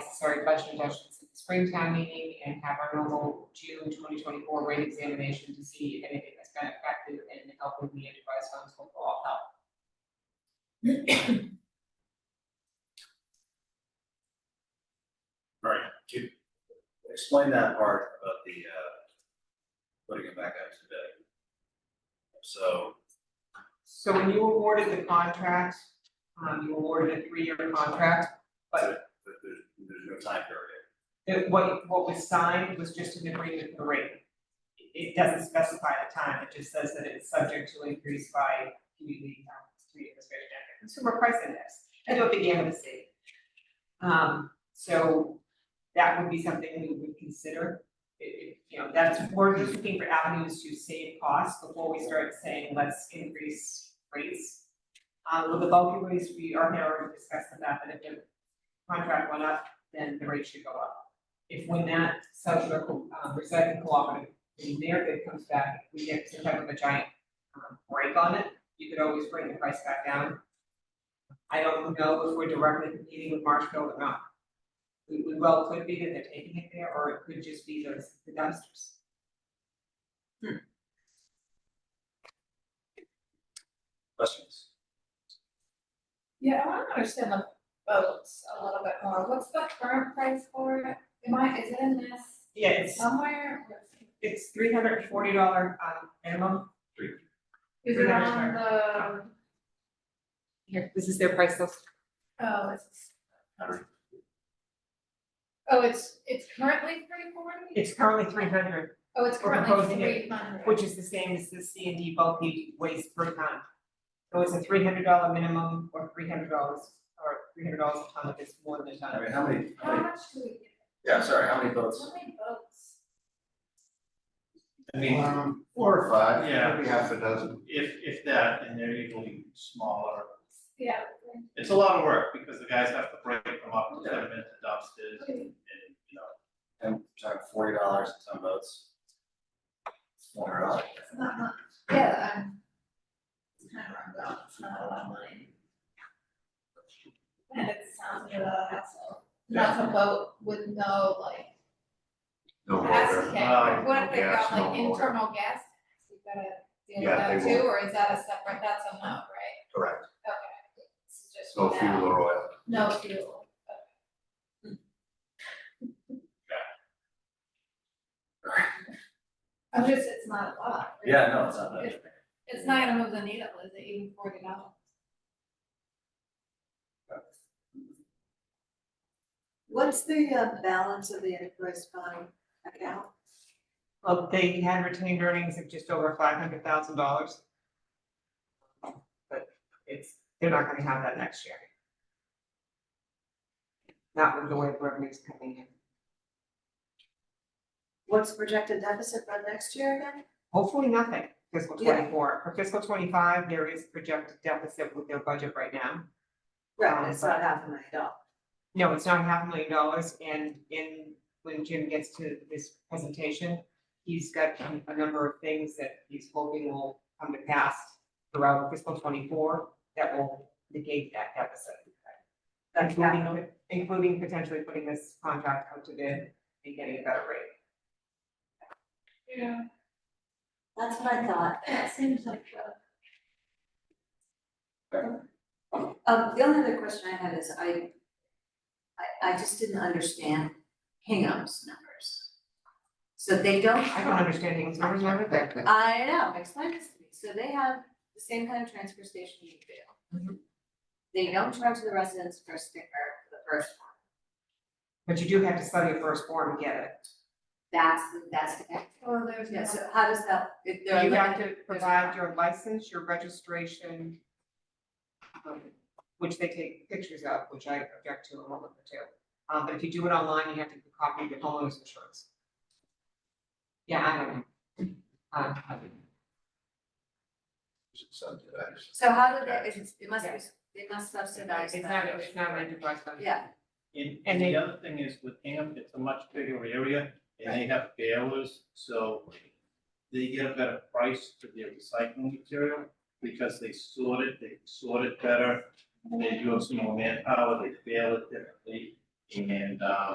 necessary budget adjustments at the spring town meeting and have our normal June twenty twenty-four rate examination to see if anything that's been affected and helping the enterprise funds will all help. All right, to explain that part about the uh putting it back out to bid. So, So when you awarded the contract, um, you awarded a three-year contract, but there's there's no time period. that what, what was signed was just an agreement for rate. It- It doesn't specify the time, it just says that it's subject to increase by community, um, community administration, and consumer price index, and what the state. Um, so that would be something we would consider. It- it- you know, that's, we're just looking for avenues to save costs before we start saying, let's increase rates. Um, with the bulky waste, we are now already discussing that, but if the contract went up, then the rate should go up. If when that social, um, recycling cooperative, the merit that comes back, we get some type of a giant um, break on it, you could always bring the price back down. I don't know if we're directly competing with Marshfield or not. We, we well could be that they're taking it there, or it could just be those, the dumpsters. Questions? Yeah, I want to understand the boats a little bit more. What's the current price for it? Am I, is it in this Yeah, it's, somewhere? it's three hundred and forty dollar, um, minimum. Is it on the, Here, this is their price list. oh, it's, Hundred. oh, it's, it's currently three forty? It's currently three hundred, Oh, it's we're currently proposing it, three hundred. which is the same as the C and D bulky waste per ton. So it's a three hundred dollar minimum or three hundred dollars or three hundred dollars a ton if it's more than a I ton. mean, how many, how How many, much do we get? yeah, sorry, how many votes? How many boats? I mean, Um, four or five, Yeah. maybe half a dozen. if, if that, and they're usually smaller, Yeah. it's a lot of work, because the guys have to break them up, put them into dumpsters, okay. and, you know, And time forty dollars and some votes. Four dollars. It's not much. Yeah, I'm. It's kind of wrong, though. It's not a lot of money. And it sounds like a lot of hassle. Not a boat with no like No gas longer. Uh, tank, what if they gas, got like no water. internal gas? tanks? You gotta deal Yeah, with that they too, will. or is that a separate, that's a no, right? Correct. Okay. It's just No now. fuel or oil. No fuel. Okay. I'm just, it's not a lot. right? Yeah, no, it's not that. It's not gonna move the needle, is it even forty dollars? What's the uh, balance of the enterprise fund account? Well, they had retained earnings of just over five hundred thousand dollars. But it's, they're not gonna have that next year. Not with the way revenue's coming in. What's the projected deficit by next year again? Hopefully nothing fiscal Yeah. twenty-four. For fiscal twenty-five, there is projected deficit with their budget right now. Right, it's not half a million dollars. No, it's not half a million dollars, and in, when Jim gets to this presentation, he's got a, a number of things that he's hoping will come to pass throughout fiscal twenty-four that will negate that deficit. That's half a Including, including potentially putting this contract out to bid and getting a better rate. Yeah. That's what I thought. That seems like a. Um, the only other question I had is I, I, I just didn't understand Hingham's numbers. So they don't. I don't understand Hingham's numbers, never that. I know, explain this to me. So they have the same kind of transfer station you do. Mhm. They don't charge the residents for a sticker for the first one. But you do have to study it first form to get it. That's, the- that's the, Well, there's yeah, so how does that, if there are You have limited- to provide your license, your registration, um, which they take pictures of, which I object to a moment or two. Um, but if you do it online, you have to copy the homeowner's insurance. Yeah, I don't know. Um, So how do they, it's- it must be, they must subsidize It's that. not, it's not an enterprise fund. Yeah, And, And and they- the other thing is with Hingham, it's a much bigger area and they have balers, so they get a better price for their recycling material because they sort it, they sort it better. They do have some more manpower, they bale it, they- they And, um,